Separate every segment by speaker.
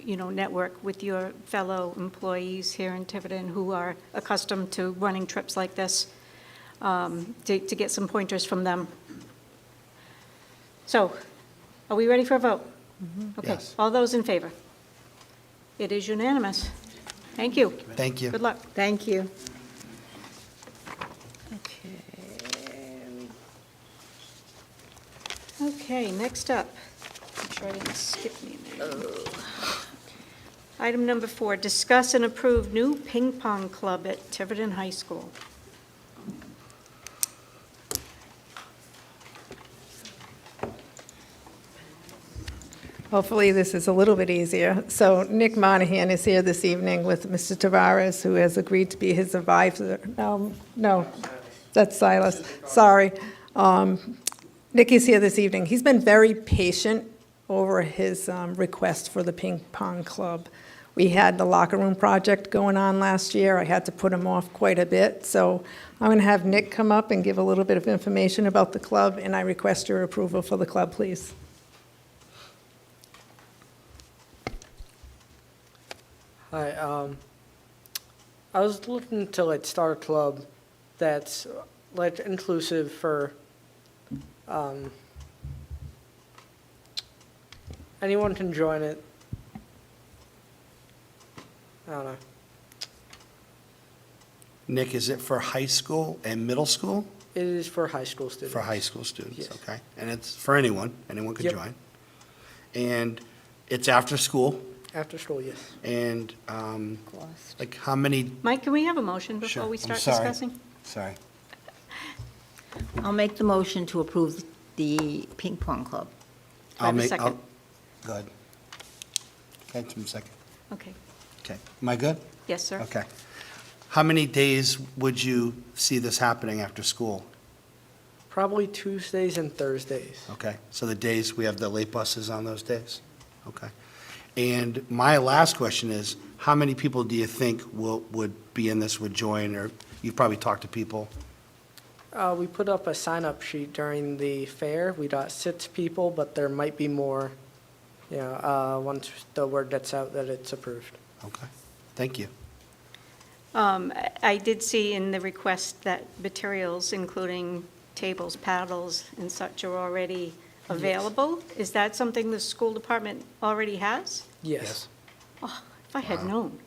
Speaker 1: you know, network with your fellow employees here in Tiverton who are accustomed to running trips like this, um, to to get some pointers from them. So, are we ready for a vote? Okay,
Speaker 2: Yes.
Speaker 1: all those in favor? It is unanimous. Thank you.
Speaker 2: Thank you.
Speaker 1: Good luck.
Speaker 3: Thank you. Okay.
Speaker 1: Okay, next up, make sure I didn't skip anything.
Speaker 3: Oh.
Speaker 1: Item number four, discuss and approve new ping pong club at Tiverton High School.
Speaker 3: Hopefully, this is a little bit easier. So Nick Monahan is here this evening with Mr. Tavares, who has agreed to be his advisor. Um, No, that's Silas, sorry. Um, Nick is here this evening. He's been very patient over his um, request for the ping pong club. We had the locker room project going on last year. I had to put him off quite a bit. So I'm going to have Nick come up and give a little bit of information about the club, and I request your approval for the club, please.
Speaker 4: Hi, um, I was looking to like start a club that's like inclusive for, um, anyone can join it. I don't know.
Speaker 2: Nick, is it for high school and middle school?
Speaker 4: It is for high school students.
Speaker 2: For high school students,
Speaker 4: Yes.
Speaker 2: okay? And it's for anyone, anyone could
Speaker 4: Yep.
Speaker 2: join. And it's after school,
Speaker 4: After school, yes.
Speaker 2: and um, like how many?
Speaker 1: Mike, can we have a motion
Speaker 2: Sure,
Speaker 1: before we
Speaker 2: I'm
Speaker 1: start
Speaker 2: sorry.
Speaker 1: discussing?
Speaker 2: Sorry.
Speaker 5: I'll make the motion to approve the ping pong club.
Speaker 1: I have a
Speaker 2: make-
Speaker 1: second?
Speaker 2: Go ahead. Okay, just a second.
Speaker 1: Okay,
Speaker 2: Okay, am I good?
Speaker 1: yes, sir.
Speaker 2: Okay. How many days would you see this happening after school?
Speaker 4: Probably Tuesdays and Thursdays.
Speaker 2: Okay, so the days, we have the late buses on those days? Okay. And my last question is, how many people do you think will, would be in this, would join, or you've probably talked to people?
Speaker 4: Uh, we put up a sign-up sheet during the fair. We got six people, but there might be more, you know, uh, once the word gets out that it's approved.
Speaker 2: Okay, thank you.
Speaker 1: Um, I- I did see in the request that materials, including tables, paddles, and such are already available. Is that something the school department already has?
Speaker 4: Yes.
Speaker 1: If I had known.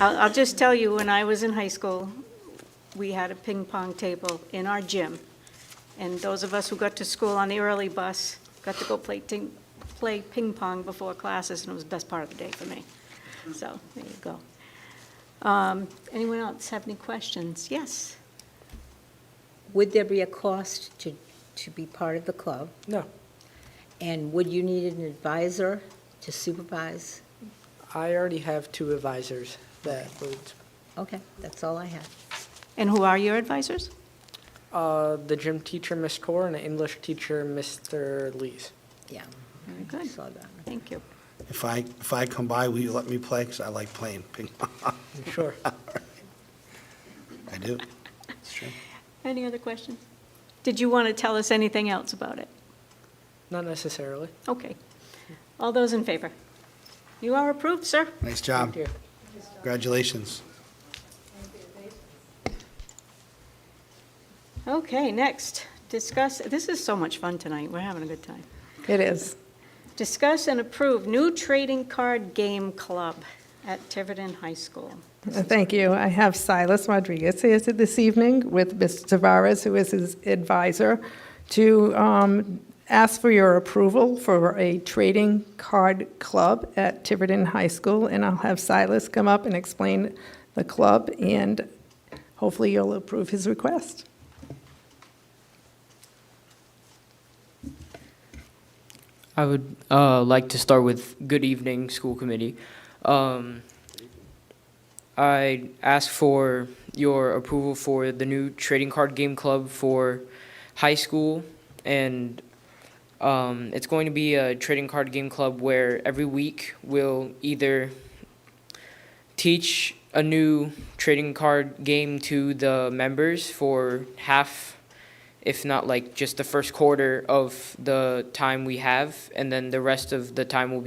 Speaker 1: I'll, I'll just tell you, when I was in high school, we had a ping pong table in our gym. And those of us who got to school on the early bus got to go play ting, play ping pong before classes, and it was the best part of the day for me. So, there you go. Um, anyone else have any questions? Yes?
Speaker 5: Would there be a cost to, to be part of the club?
Speaker 4: No.
Speaker 5: And would you need an advisor to supervise?
Speaker 4: I already have two advisors that would,
Speaker 5: Okay, that's all I have.
Speaker 1: And who are your advisors?
Speaker 4: uh, the gym teacher, Miss Core, and the English teacher, Mr. Lees.
Speaker 5: Yeah.
Speaker 1: Very
Speaker 5: I
Speaker 1: good.
Speaker 5: saw that.
Speaker 1: Thank you.
Speaker 2: If I, if I come by, will you let me play? Because I like playing ping pong.
Speaker 4: Sure.
Speaker 2: I do. It's true.
Speaker 1: Any other questions? Did you want to tell us anything else about it?
Speaker 4: Not necessarily.
Speaker 1: Okay. All those in favor? You are approved, sir.
Speaker 2: Nice job.
Speaker 4: Thank you.
Speaker 2: Congratulations.
Speaker 1: Okay, next, discuss, this is so much fun tonight, we're having a good time.
Speaker 3: It is.
Speaker 1: Discuss and approve new trading card game club at Tiverton High School.
Speaker 3: Uh, Thank you. I have Silas Rodriguez here to- this evening with Mr. Tavares, who is his advisor, to um, ask for your approval for a trading card club at Tiverton High School, and I'll have Silas come up and explain the club, and hopefully you'll approve his request.
Speaker 6: I would uh, like to start with good evening, school committee. Um, I ask for your approval for the new trading card game club for high school, and um, it's going to be a trading card game club where every week we'll either teach a new trading card game to the members for half if not like just the first quarter of the time we have, and then the rest of the time will be.